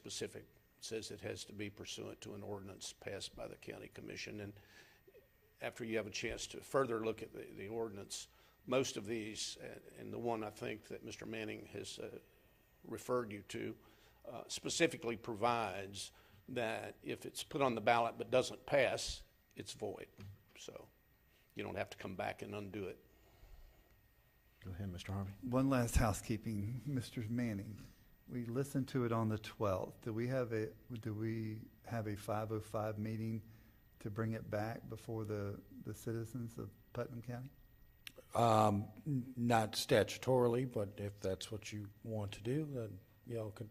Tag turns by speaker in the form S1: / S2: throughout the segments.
S1: specific, says it has to be pursuant to an ordinance passed by the county commission. And after you have a chance to further look at the, the ordinance, most of these, a- and the one I think that Mr. Manning has uh, referred you to, uh, specifically provides that if it's put on the ballot but doesn't pass, it's void. So you don't have to come back and undo it.
S2: Go ahead, Mr. Harvey.
S3: One last housekeeping, Mr. Manning. We listened to it on the twelfth. Do we have a, do we have a five oh five meeting to bring it back before the, the citizens of Putnam County?
S2: Um, n- not statutorily, but if that's what you want to do, then y'all could,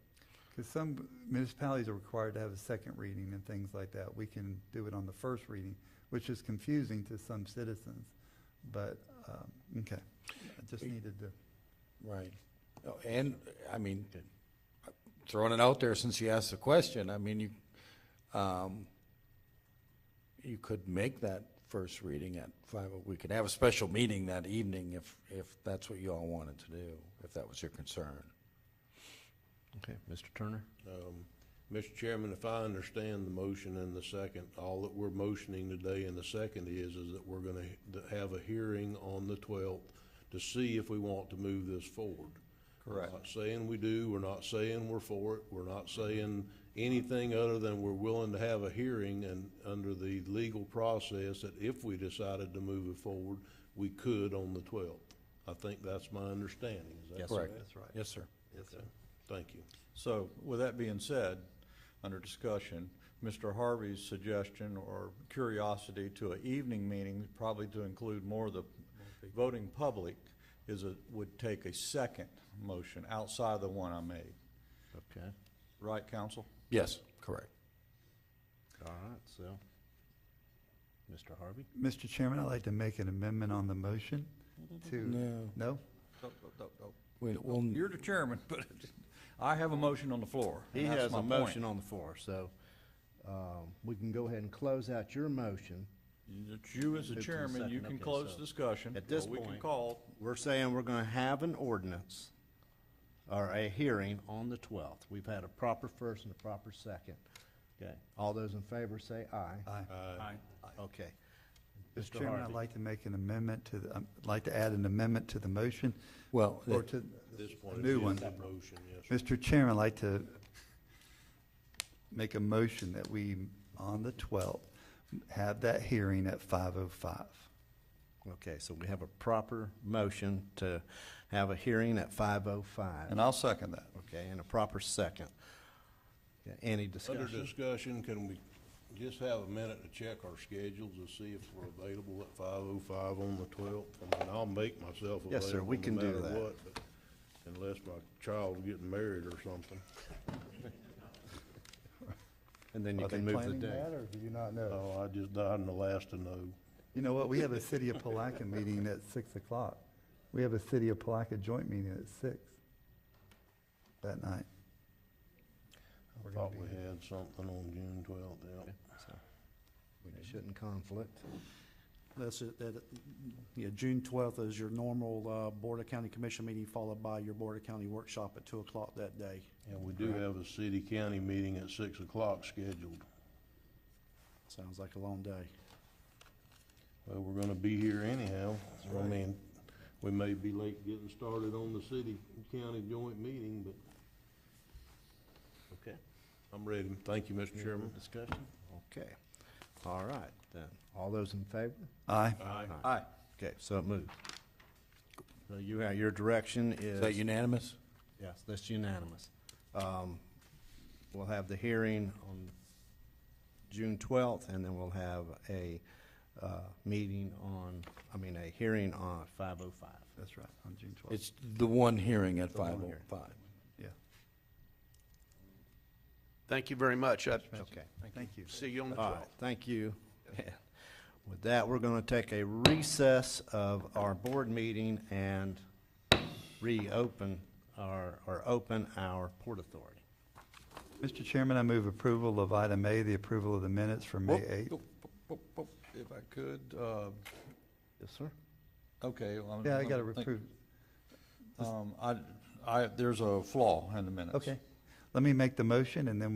S3: Because some municipalities are required to have a second reading and things like that. We can do it on the first reading, which is confusing to some citizens. But, um, okay, I just needed to.
S2: right. Oh, And, I mean, throwing it out there since you asked the question, I mean, you, um, you could make that first reading at five, we could have a special meeting that evening if, if that's what you all wanted to do, if that was your concern.
S4: Okay, Mr. Turner?
S5: Um, Mr. Chairman, if I understand the motion and the second, all that we're motioning today in the second is, is that we're gonna h- th- have a hearing on the twelfth to see if we want to move this forward. Correct. Not saying we do, we're not saying we're for it, we're not saying anything other than we're willing to have a hearing and under the legal process that if we decided to move it forward, we could on the twelfth. I think that's my understanding, is that
S4: Yes,
S2: Correct.
S4: That's right.
S2: Yes, sir.
S4: Yes, sir.
S5: Thank you.
S6: So with that being said, under discussion, Mr. Harvey's suggestion or curiosity to an evening meeting, probably to include more of the voting public, is a, would take a second motion outside of the one I made.
S4: Okay,
S6: Right, counsel?
S2: Yes, correct.
S4: all right, so, Mr. Harvey?
S3: Mr. Chairman, I'd like to make an amendment on the motion to,
S2: No,
S3: no?
S6: No, no, no, no.
S2: we, we'll,
S6: You're the chairman, but I have a motion on the floor. and
S4: He
S6: that's
S4: has
S6: my
S4: a
S6: point.
S4: motion on the floor, so, um, we can go ahead and close out your motion.
S6: That You as
S4: Who
S6: the
S4: can
S6: chairman,
S4: second?
S6: you can
S4: Okay,
S6: close
S4: so
S6: discussion.
S4: at this
S6: or We can
S4: point-
S6: call,
S4: We're saying we're gonna have an ordinance or a hearing on the twelfth. We've had a proper first and a proper second. Okay, all those in favor say aye.
S3: Aye.
S4: uh, Okay.
S3: Mr. Chairman, I'd like to make an amendment to, the- I'd like to add an amendment to the motion,
S2: well,
S3: or to,
S5: At this point,
S3: New
S5: it's
S3: one.
S5: just a motion, yes, sir.
S3: Mr. Chairman, I'd like to make a motion that we, on the 12th, have that hearing at 5:05.
S4: Okay, so we have a proper motion to have a hearing at five oh five.
S6: and I'll second that.
S4: Okay, and a proper second. Okay, Any
S5: Under
S4: discussion?
S5: discussion, can we just have a minute to check our schedules to see if we're available at five oh five on the twelfth? I mean, I'll make myself available.
S4: Yes, sir, we
S5: no
S4: can do
S5: matter
S4: that.
S5: what, but Unless my child's getting married or something.
S4: And then you
S3: Are they
S4: can move the
S3: planning
S4: day.
S3: that, or do you not know?
S5: Oh, I just died in the last to know.
S3: You know what, we have a City of Palaca meeting at 6 o'clock. We have a City of Palaca joint meeting at 6 that night.
S5: I
S3: We're gonna
S5: thought
S3: be
S5: we
S3: here.
S5: had something on June twelfth, yeah.
S4: So, We shouldn't conflict.
S7: That's it, that, yeah, June twelfth is your normal, uh, Board of County Commission meeting, followed by your Board of County workshop at two o'clock that day.
S5: And we do have a city-county meeting at six o'clock scheduled.
S7: Sounds like a long day.
S5: Well, we're gonna be here anyhow. I mean, we may be late getting started on the city-county joint meeting, but
S4: Okay.
S5: I'm ready. Thank you, Mr. Chairman.
S4: Discussion? Okay. All right, then. All those in favor?
S3: Aye.
S5: Aye.
S4: Aye. Okay, so it moved. So you, have- your direction
S2: is that
S4: is,
S2: unanimous?
S4: yes, that's unanimous. Um, We'll have the hearing on June twelfth, and then we'll have a, uh, meeting on, I mean, a hearing on five oh five.
S3: That's right, on June 12th.
S2: It's the one hearing at
S4: The one
S2: five oh
S4: hearing.
S2: five.
S3: Yeah,
S1: Thank you very much. I
S4: Okay.
S3: thank you.
S1: see you on the
S4: All right,
S1: twelfth.
S4: thank you. With that, we're going to take a recess of our board meeting and reopen our, or open our Port Authority.
S3: Mr. Chairman, I move approval of item A, the approval of the minutes for May
S6: Whoop,
S3: 8th.
S6: whoop, whoop, whoop, whoop. If I could, uh,
S4: Yes, sir.
S6: Okay. well, I'm-
S3: Yeah, I
S6: I'm
S3: got to
S6: think-
S3: approve.
S6: Um, I, I, there's a flaw in the minutes.
S3: Okay. let me make the motion and then we